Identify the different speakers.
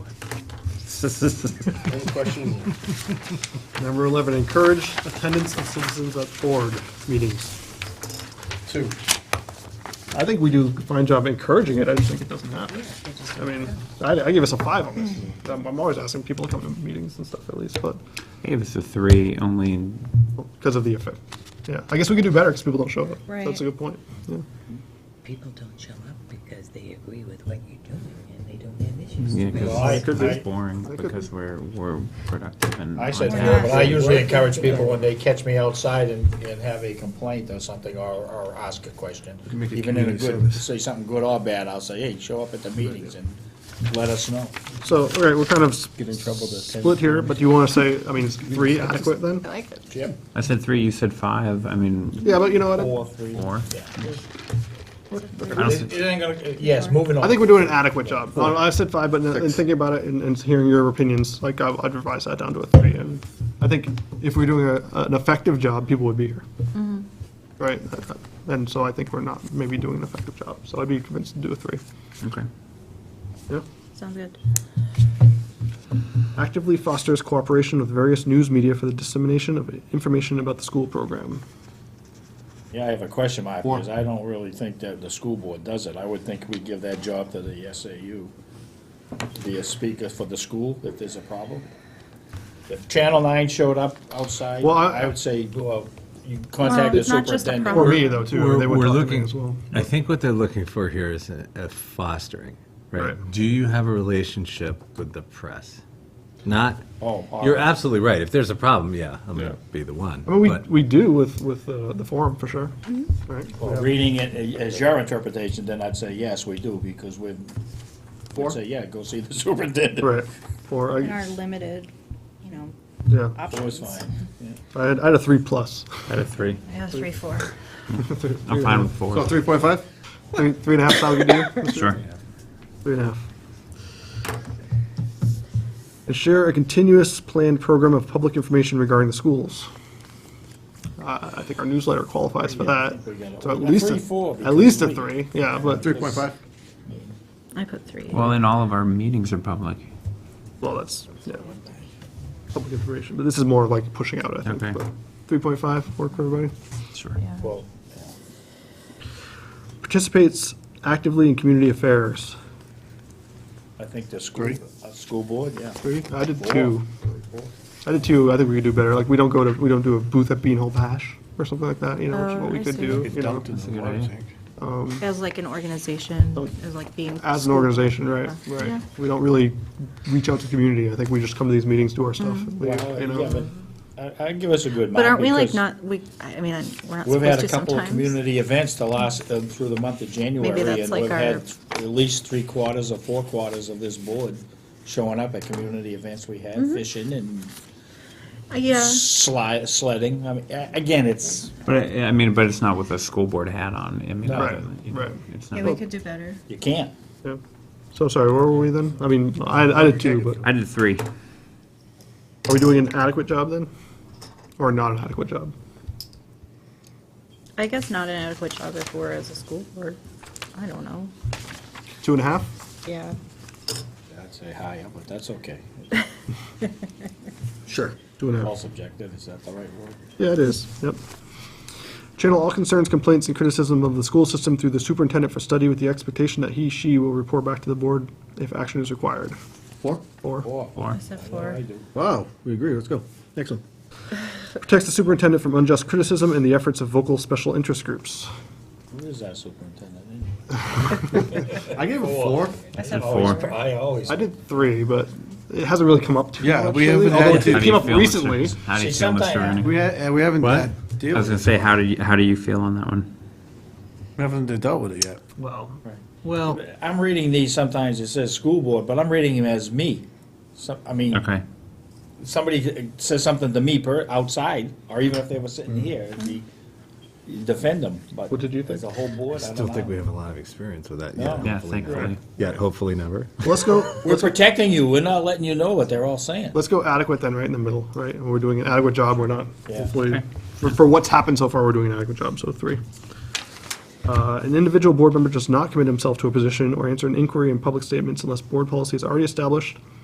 Speaker 1: Any questions?
Speaker 2: Number 11, encourage attendance of citizens at board meetings.
Speaker 1: Two.
Speaker 2: I think we do a fine job encouraging it, I just think it doesn't happen. I mean, I, I give us a five on this. I'm I'm always asking people to come to meetings and stuff at least, but,
Speaker 3: I gave us a three, only in
Speaker 2: because of the effect. Yeah, I guess we could do better because people don't show up.
Speaker 4: Right.
Speaker 2: That's a good point. Yeah.
Speaker 5: People don't show up because they agree with what you're doing and they don't have issues.
Speaker 3: Yeah,
Speaker 1: Well, I-
Speaker 3: because
Speaker 1: I-
Speaker 3: it's boring,
Speaker 2: I could-
Speaker 3: because we're, we're productive and
Speaker 1: I
Speaker 3: on
Speaker 1: said
Speaker 3: task.
Speaker 1: four, but I usually encourage people when they catch me outside and, and have a complaint or something, or, or ask a question.
Speaker 6: make it
Speaker 1: Even in a
Speaker 6: community
Speaker 1: good,
Speaker 6: service.
Speaker 1: say something good or bad, I'll say, hey, show up at the meetings and let us know.
Speaker 2: So, all right, we're kind of s-
Speaker 6: Get in trouble to attend.
Speaker 2: split here, but do you want to say, I mean, is three adequate then?
Speaker 4: I like it.
Speaker 1: Yep.
Speaker 3: I said three, you said five, I mean,
Speaker 2: Yeah, but you know what?
Speaker 1: three.
Speaker 3: four.
Speaker 1: It it ain't gonna, yes, moving on.
Speaker 2: I think we're doing an adequate job. I I said five, but in in thinking about it and, and hearing your opinions, like, I- I'd revise that down to a three. And I think if we're doing a, an effective job, people would be here.
Speaker 4: Mm-hmm.
Speaker 2: Right? And so I think we're not maybe doing an effective job. So I'd be convinced to do a three.
Speaker 3: Okay.
Speaker 2: Yeah.
Speaker 4: Sounds good.
Speaker 2: Actively fosters cooperation with various news media for the dissemination of information about the school program.
Speaker 1: Yeah, I have a question mark,
Speaker 6: Four.
Speaker 1: because I don't really think that the school board does it. I would think we give that job to the SAU, to be a speaker for the school if there's a problem. If Channel Nine showed up outside,
Speaker 2: Well, I-
Speaker 1: I would say, well, you contact the
Speaker 4: it's not just a
Speaker 1: superintendent.
Speaker 2: Or me, though, too.
Speaker 6: We're-
Speaker 2: They would
Speaker 6: we're
Speaker 2: talk to me
Speaker 6: looking-
Speaker 2: as well.
Speaker 7: I think what they're looking for here is a a fostering, right?
Speaker 2: Right.
Speaker 7: Do you have a relationship with the press? Not,
Speaker 1: Oh, all
Speaker 7: you're
Speaker 1: right.
Speaker 7: absolutely right. If there's a problem, yeah, I'm
Speaker 2: Yeah.
Speaker 7: gonna be the one.
Speaker 2: I mean, we,
Speaker 7: but-
Speaker 2: we do with, with uh, the forum, for sure.
Speaker 4: Mm-hmm.
Speaker 2: Right?
Speaker 1: Well, Reading it as your interpretation, then I'd say, yes, we do, because we'd,
Speaker 2: Four?
Speaker 1: I'd say, yeah, go see the superintendent.
Speaker 2: Right. Or,
Speaker 4: In our
Speaker 2: I-
Speaker 4: limited, you know,
Speaker 2: yeah,
Speaker 1: It was
Speaker 4: options.
Speaker 1: fine.
Speaker 2: I had, I had a three plus.
Speaker 3: I had a three.
Speaker 4: I have three, four.
Speaker 3: I'm fine with four.
Speaker 2: So three point five? Three, three and a half sound good to you? Mr.
Speaker 3: Sure.
Speaker 2: Three and a half. And share a continuous planned program of public information regarding the schools. Uh, I think our newsletter qualifies for that,
Speaker 1: think we got it.
Speaker 2: so at
Speaker 1: Yeah,
Speaker 2: least,
Speaker 1: three,
Speaker 2: a-
Speaker 1: four,
Speaker 2: at least a
Speaker 1: because
Speaker 2: three, yeah, but. Three point five?
Speaker 4: I put three.
Speaker 3: Well, and all of our meetings are public.
Speaker 2: Well, that's, yeah. Public information, but this is more like pushing out, I
Speaker 3: Okay.
Speaker 2: think, but three point five, work for everybody.
Speaker 3: Sure.
Speaker 1: Well,
Speaker 2: Participates actively in community affairs.
Speaker 1: I think the school, uh, school board, yeah.
Speaker 2: Three? I did two. I did too. I think we could do better. Like, we don't go to, we don't do a booth at Beanhole Bash or something like that, you know, which is
Speaker 4: Oh,
Speaker 2: what we
Speaker 4: I
Speaker 2: could
Speaker 4: see.
Speaker 2: do, you know,
Speaker 6: Dumped in the
Speaker 3: good
Speaker 6: water
Speaker 3: idea.
Speaker 6: tank.
Speaker 4: As like an organization, as like being.
Speaker 2: as an organization, right?
Speaker 4: Yeah.
Speaker 2: Right. We don't really reach out to the community. I think we just come to these meetings, do our stuff,
Speaker 4: Mm-hmm.
Speaker 2: and leave,
Speaker 1: Well,
Speaker 2: you
Speaker 1: yeah,
Speaker 2: know?
Speaker 1: but I, I'd give us a good mark.
Speaker 4: But aren't we like
Speaker 1: because
Speaker 4: not, we, I mean, I- we're not
Speaker 1: We've had
Speaker 4: supposed
Speaker 1: a
Speaker 4: to
Speaker 1: couple of
Speaker 4: sometimes.
Speaker 1: community events the last, uh, through the month of January,
Speaker 4: that's
Speaker 1: and
Speaker 4: like
Speaker 1: we've
Speaker 4: our-
Speaker 1: had at least three quarters or four quarters of this board showing up at community events we had, fishing and
Speaker 4: Uh, Mm-hmm. Yeah,
Speaker 1: sli sledding. I mean, a- again, it's,
Speaker 3: But, I I mean, but it's not with a school board hat on, I mean.
Speaker 1: No.
Speaker 2: Right,
Speaker 3: it-
Speaker 2: right.
Speaker 3: It's
Speaker 4: yeah, we
Speaker 3: not.
Speaker 4: could do better.
Speaker 1: you can't.
Speaker 2: Yeah. So sorry, where were we then? I mean, I, I did two, but
Speaker 3: I did three.
Speaker 2: are we doing an adequate job then? Or not an adequate job?
Speaker 4: I guess not an adequate job if we're as a school board. I don't know.
Speaker 2: Two and a half?
Speaker 4: Yeah.
Speaker 1: I'd say higher, but that's okay.
Speaker 2: Sure. Two and a half.
Speaker 1: All subjective, is that the right word?
Speaker 2: Yeah, it is, yep. Channel all concerns, complaints, and criticism of the school system through the superintendent for study with the expectation that he, she will report back to the board if action is required.
Speaker 6: Four?
Speaker 2: Or
Speaker 1: Four.
Speaker 3: Four.
Speaker 4: I said
Speaker 1: I know
Speaker 4: four.
Speaker 1: I do.
Speaker 6: Wow, we agree, let's go. Next one.
Speaker 2: protects the superintendent from unjust criticism and the efforts of vocal special interest groups.
Speaker 1: Who is that superintendent?
Speaker 6: I gave a four.
Speaker 4: I said
Speaker 3: Four.
Speaker 4: four.
Speaker 1: I always.
Speaker 2: I did three, but it hasn't really come up too much.
Speaker 6: Yeah, we
Speaker 2: lately,
Speaker 6: haven't
Speaker 2: Although
Speaker 6: had
Speaker 2: it
Speaker 6: to-
Speaker 2: did
Speaker 3: How do
Speaker 2: came
Speaker 3: you
Speaker 2: up
Speaker 3: feel, Mr.
Speaker 2: recently.
Speaker 3: Vernon? How do you
Speaker 1: See,
Speaker 3: feel, Mr.
Speaker 1: sometime-
Speaker 3: Vernon?
Speaker 6: We ha- uh, we haven't
Speaker 3: What?
Speaker 6: had to deal
Speaker 3: I was gonna
Speaker 6: with it.
Speaker 3: say, how do you, how do you feel on that one?
Speaker 6: We haven't dealt with it yet.
Speaker 2: Well,
Speaker 7: Well,
Speaker 1: I'm reading these, sometimes it says school board, but I'm reading them as me. Some, I mean.
Speaker 3: Okay.
Speaker 1: somebody says something to me per, outside, or even if they were sitting here, it'd be, you defend them, but.
Speaker 2: Mm-hmm. What did you think?
Speaker 1: As a whole
Speaker 7: I
Speaker 1: board, I
Speaker 7: still
Speaker 1: don't
Speaker 7: think we
Speaker 1: know.
Speaker 7: have a lot of experience with that
Speaker 1: No.
Speaker 7: yet.
Speaker 3: Yeah,
Speaker 7: hopefully never.
Speaker 3: thankfully.
Speaker 7: Yet, hopefully never.
Speaker 2: let's go,
Speaker 1: We're protecting you, we're not letting you know what they're all saying.
Speaker 2: let's go adequate then, right in the middle, right? And we're doing an adequate job, we're not,
Speaker 1: Yeah.
Speaker 2: hopefully, for, for what's happened so far, we're doing an adequate job, so three. Uh, an individual board member does not commit himself to a position or answer an inquiry in public statements unless board policy is already established